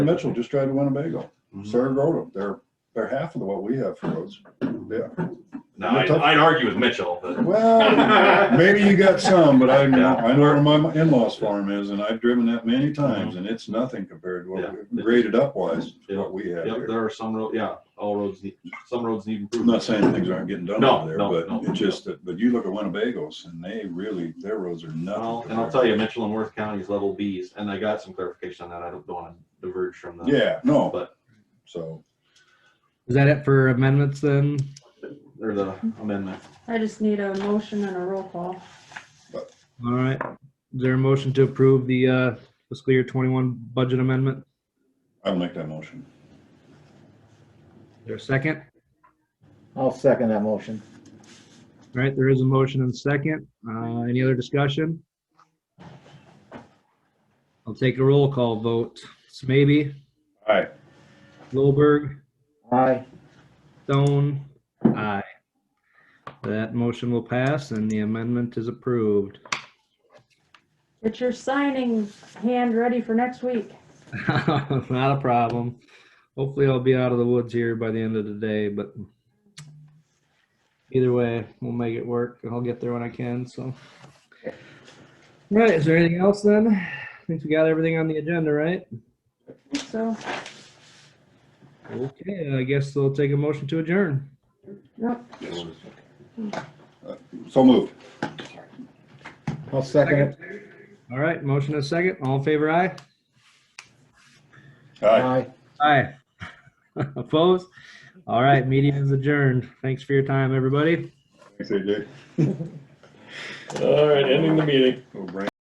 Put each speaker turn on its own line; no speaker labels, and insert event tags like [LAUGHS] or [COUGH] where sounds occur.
Mitchell just tried to Winnebago.
Mhm.
Saragordo, they're, they're half of what we have for roads. Yeah.
No, I'd, I'd argue with Mitchell,
[LAUGHS]
but
Well, maybe you got some, but I,
Yeah.
I know where my in-laws farm is and I've driven that many times and it's nothing compared to
Mm-hmm. Yeah.
what, we- graded up wise,
Yeah.
what we have
yep,
here.
there are some roads, yeah, all roads need, some roads need
I'm
improvement.
not saying things aren't getting done
No,
over there,
no,
but
no,
it's just that, but you look at Winnebago's and they really, their roads are
Well,
nothing.
and I'll
compared.
tell you, Mitchell and Worth County is level Bs, and I got some clarification on that. I don't want to diverge from that.
Yeah, no,
But-
so,
Is that it for amendments then?
Or the amendment.
I just need a motion and a roll call.
All right. Is there a motion to approve the uh, fiscal year 21 budget amendment? Is
I'll make that motion.
there a second?
I'll second that motion.
All right, there is a motion and a second. Uh, Any other discussion? I'll take a roll call vote. Smaby,
All right,
Lowberg,
Aye.
Stone, aye. That motion will pass and the amendment is approved.
Get your signing hand ready for next week.
[LAUGHS] Not a problem. Hopefully I'll be out of the woods here by the end of the day, but either way, we'll make it work. I'll get there when I can, so. All Right, is there anything else then? I think we got everything on the agenda, right?
So,
Okay, I guess they'll take a motion to adjourn.
no,
Uh, so moved.
I'll second it.
All right, motion and a second. All in favor, aye?
All right.
Aye.
Aye. [LAUGHS] Opposed? All right, meeting is adjourned. Thanks for your time, everybody.
Thanks, AJ.
All right, ending the meeting.
Little brain